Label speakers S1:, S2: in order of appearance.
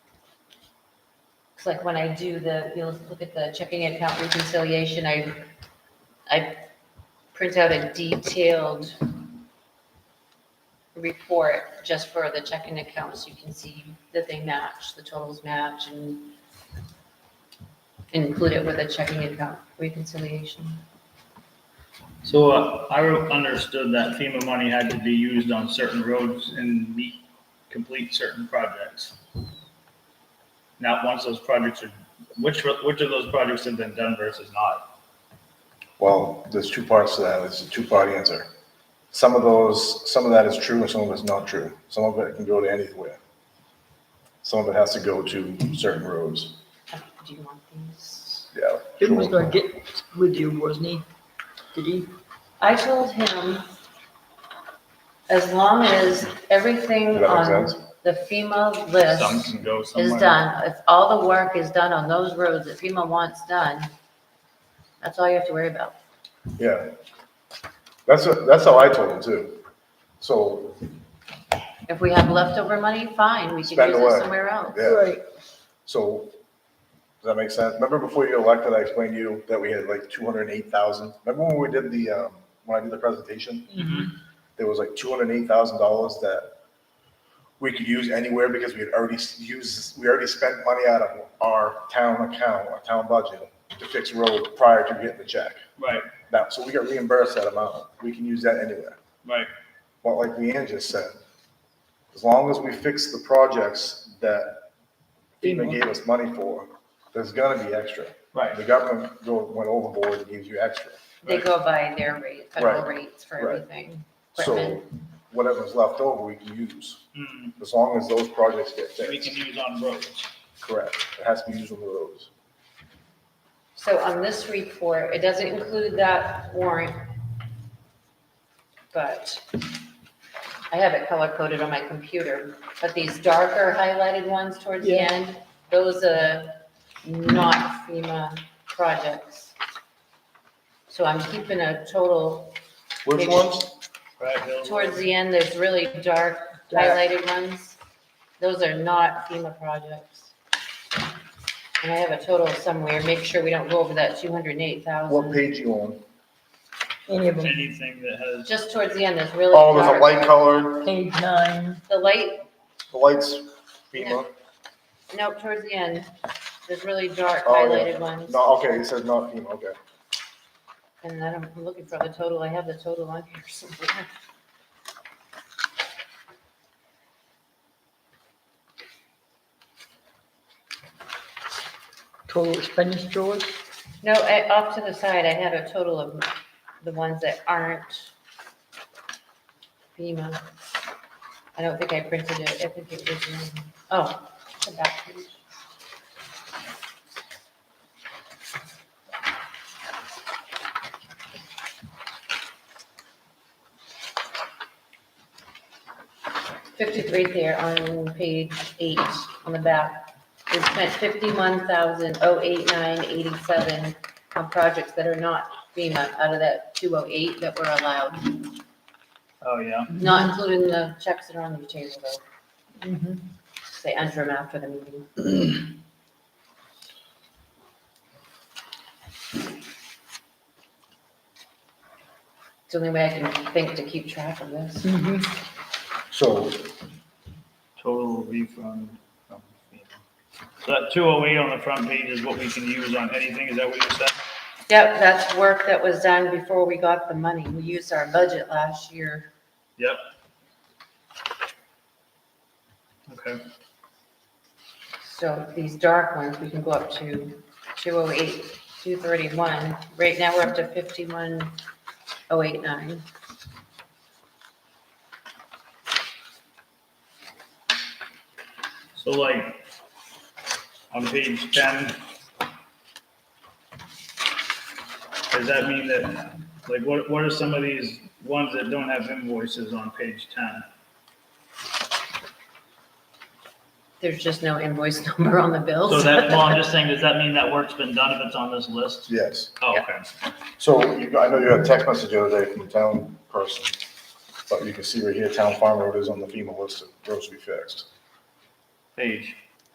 S1: It's like when I do the, you'll look at the checking account reconciliation, I, I print out a detailed report just for the checking accounts, you can see that they match, the totals match and include it with a checking account reconciliation.
S2: So uh, I understood that FEMA money had to be used on certain roads and meet, complete certain projects. Now, once those projects are, which, ro- which of those projects have been done versus not?
S3: Well, there's two parts to that. It's a two-part answer. Some of those, some of that is true and some of it's not true. Some of it can go to anywhere. Some of it has to go to certain roads.
S1: Uh, Do you want these?
S3: Yeah.
S4: Jim was
S3: sure.
S4: gonna get with you, wasn't he? Did he?
S1: I told him, as long as everything
S3: Does that make
S1: on
S3: sense?
S1: the FEMA
S2: Some
S1: list
S2: can go
S1: is
S3: Oh
S2: somewhere.
S1: done, if all the work is done on those roads that FEMA wants done, that's all you have to worry about.
S3: Yeah. That's, what- that's how I told him too. So,
S1: If we have leftover money, fine, we can
S3: Spend
S1: use
S3: away.
S1: it somewhere else.
S3: yeah. So, does that make sense? Remember before you got elected, I explained to you that we had like two hundred and eight thousand? Remember when we did the, um, when I did the presentation? There was like two hundred and eight thousand dollars that we could use anywhere because we had already s- used, we already spent money out of our town account, our town budget to fix road prior to getting the check.
S2: Right,
S3: Now, so we got reimbursed that amount. We can use that anywhere.
S2: right.
S3: But like Leanne just said, as long as we fix the projects that FEMA gave us money for, there's gonna be extra.
S2: Right.
S3: The government go, went overboard and gives you extra.
S1: They go by their rate, federal
S3: Right.
S1: rates for
S3: Right.
S1: everything.
S3: So
S1: Equipment.
S3: whatever's left over, we can use,
S2: Hmm,
S3: as long as those projects get
S2: We can
S3: fixed.
S2: use on roads.
S3: Correct. It has to be used on the roads.
S1: So on this report, it doesn't include that warrant, but I have it color coded on my computer, but these darker highlighted ones towards the
S4: Yeah.
S1: end, those are not FEMA projects. So I'm keeping a total,
S3: Which ones?
S2: Right, Bill?
S1: towards the end, there's really dark highlighted ones. Those are not FEMA projects. And I have a total somewhere, make sure we don't go over that two hundred and eight thousand.
S3: What page you on?
S4: Any of them,
S2: Anything that has,
S1: Just towards the end, there's really.
S3: Oh, there's a
S1: dark.
S3: light colored,
S4: page nine,
S1: The light,
S3: the lights FEMA.
S1: no, towards the end, there's really dark
S3: Oh, yeah.
S1: highlighted ones.
S3: No, okay, it says not FEMA, okay.
S1: And then I'm looking for the total, I have the total on here somewhere.
S4: total expenditures,
S1: No, I- off to the side, I had a total of the ones that aren't FEMA. I don't think I printed it, I think it was, in- oh, it's the back page. Fifty-three there on page eight, on the back. We spent fifty-one thousand oh eight nine eighty-seven on projects that are not FEMA out of that two oh eight that were allowed,
S2: oh, yeah.
S1: not including the checks that are on the table though.
S4: Mhm.
S1: They enter them after the meeting. It's the only way I can think to keep track of this.
S4: Mm-hmm.
S3: So
S2: Total refund from FEMA. So that two oh eight on the front page is what we can use on anything, is that what you said?
S1: Yep, that's work that was done before we got the money. We used our budget last year.
S2: Yep. Okay,
S1: So these dark ones, we can go up to 208, 231. Right now, we're up to 51089.
S2: so like, on page ten, does that mean that, like, what, what are some of these ones that don't have invoices on page ten?
S1: There's just no invoice number on the bills.
S2: So that, well, I'm just saying, does that mean that work's been done if it's on this list?
S3: Yes.
S2: Oh, okay.
S3: So you, I know you had a text message the other day from the town person, but you can see right here, town farm road is on the FEMA list of roads to be fixed.
S2: Page,